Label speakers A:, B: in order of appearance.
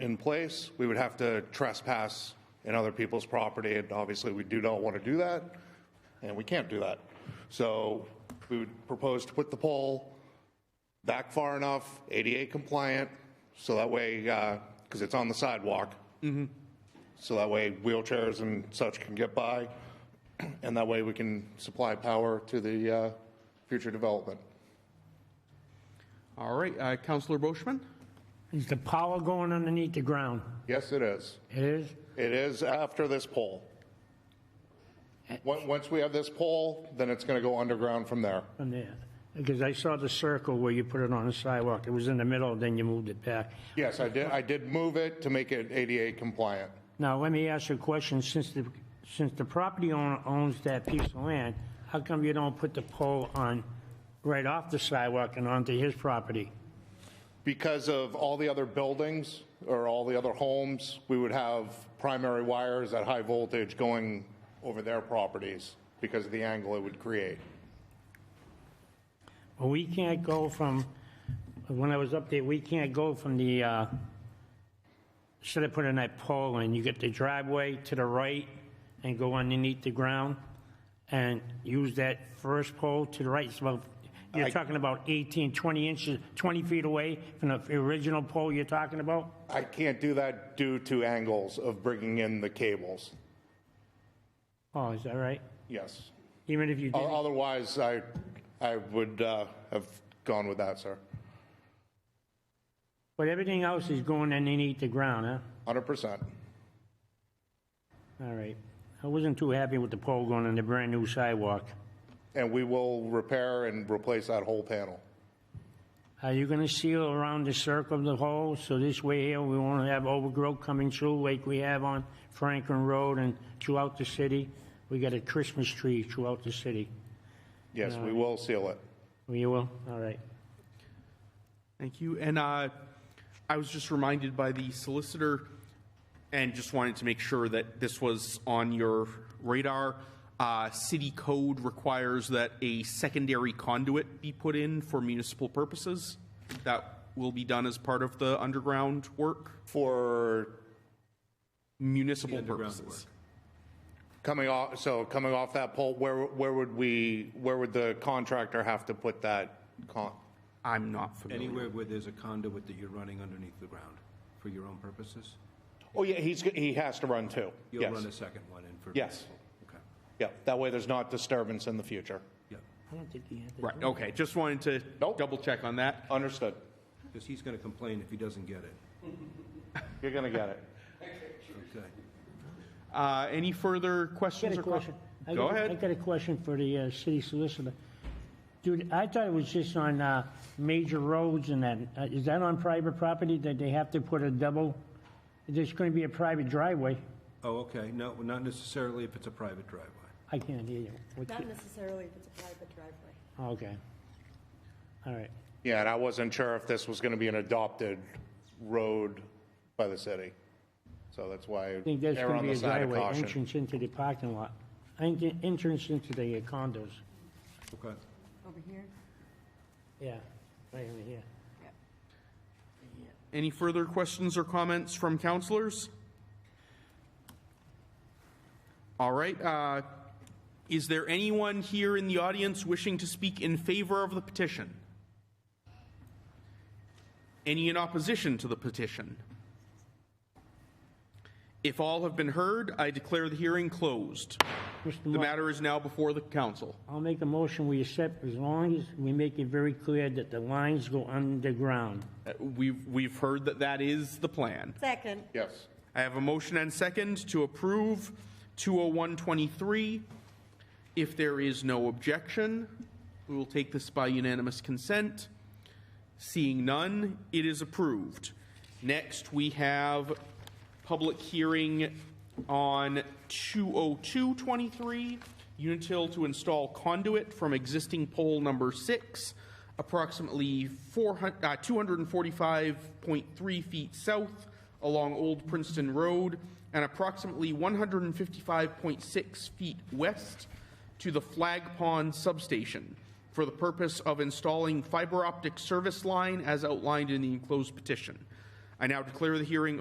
A: in place, we would have to trespass in other people's property, and obviously, we do not want to do that, and we can't do that. So we would propose to put the pole back far enough, ADA compliant, so that way, because it's on the sidewalk, so that way wheelchairs and such can get by, and that way we can supply power to the uh, future development.
B: All right, uh, Counselor Boishman?
C: Is the power going underneath the ground?
A: Yes, it is.
C: It is?
A: It is after this pole. Once once we have this pole, then it's going to go underground from there.
C: From there? Because I saw the circle where you put it on the sidewalk. It was in the middle, then you moved it back.
A: Yes, I did, I did move it to make it ADA compliant.
C: Now, let me ask you a question. Since the, since the property owner owns that piece of land, how come you don't put the pole on, right off the sidewalk and onto his property?
A: Because of all the other buildings or all the other homes, we would have primary wires at high voltage going over their properties because of the angle it would create.
C: Well, we can't go from, when I was up there, we can't go from the, uh, should I put in that pole in? You get the driveway to the right and go underneath the ground and use that first pole to the right. It's about, you're talking about 18, 20 inches, 20 feet away from the original pole you're talking about?
A: I can't do that due to angles of bringing in the cables.
C: Oh, is that right?
A: Yes.
C: Even if you
A: O-
C: did,
A: Otherwise, I, I would uh, have gone with that, sir.
C: but everything else is going underneath the ground, huh?
A: 100%.
C: All right. I wasn't too happy with the pole going on the brand-new sidewalk.
A: And we will repair and replace that whole panel.
C: Are you gonna seal around the circle of the hole, so this way here, we won't have overgrowth coming through like we have on Franklin Road and throughout the city? We got a Christmas tree throughout the city. Oh,
A: Yes, we will seal it.
C: You will? All right.
B: Thank you. And uh, I was just reminded by the solicitor and just wanted to make sure that this was on your radar. Uh, City code requires that a secondary conduit be put in for municipal purposes. That will be done as part of the underground work,
A: For
B: municipal purposes.
A: coming off, so coming off that pole, where, where would we, where would the contractor have to put that con?
B: I'm not familiar.
D: Anywhere where there's a conduit that you're running underneath the ground for your own purposes?
A: Oh, yeah, he's, he has to run two.
D: You'll
A: Yes.
D: run a second one in for...
A: Yes.
D: Okay,
A: Yeah, that way there's not disturbance in the future.
D: yeah,
C: I don't think he had to.
B: Right, okay, just wanted to
A: Nope.
B: double check on that.
A: Understood.
D: because he's going to complain if he doesn't get it.
A: You're going to get it.
D: Okay.
B: Uh, Any further
C: I
B: questions
C: got a
B: or
C: question.
B: questions?
C: I
B: Go
C: got-
B: ahead.
C: I got a question for the uh, city solicitor. Dude, I thought it was just on uh, major roads and that. Uh, Is that on private property that they have to put a double? There's gonna be a private driveway.
D: Oh, okay, no, not necessarily if it's a private driveway.
C: I can't hear you. What
E: Not
C: you-
E: necessarily if it's a private driveway.
C: Okay. All right.
A: Yeah, and I wasn't sure if this was going to be an adopted road by the city. So that's why
C: I think there's
A: err
C: going to
A: on
C: be
A: the
C: a
A: side of
C: driveway
A: caution.
C: entrance into the parking lot, en- entrance into the uh, condos.
D: Okay.
E: Over here?
C: Yeah, right over here.
B: Any further questions or comments from counselors? All right, uh, is there anyone here in the audience wishing to speak in favor of the petition? Any in opposition to the petition? If all have been heard, I declare the hearing closed.
C: Mr.
B: The
C: Mark,
B: matter is now before the council.
C: I'll make a motion we accept as long as we make it very clear that the lines go underground.
B: Uh, We've, we've heard that that is the plan.
E: Second,
A: Yes.
B: I have a motion and second to approve 20123. If there is no objection, we will take this by unanimous consent. Seeing none, it is approved. Next, we have public hearing on 20223, Unitil to install conduit from existing pole number six, approximately 400 uh, 245.3 feet south along Old Princeton Road and approximately 155.6 feet west to the Flag Pond substation for the purpose of installing fiber optic service line as outlined in the enclosed petition. I now declare the hearing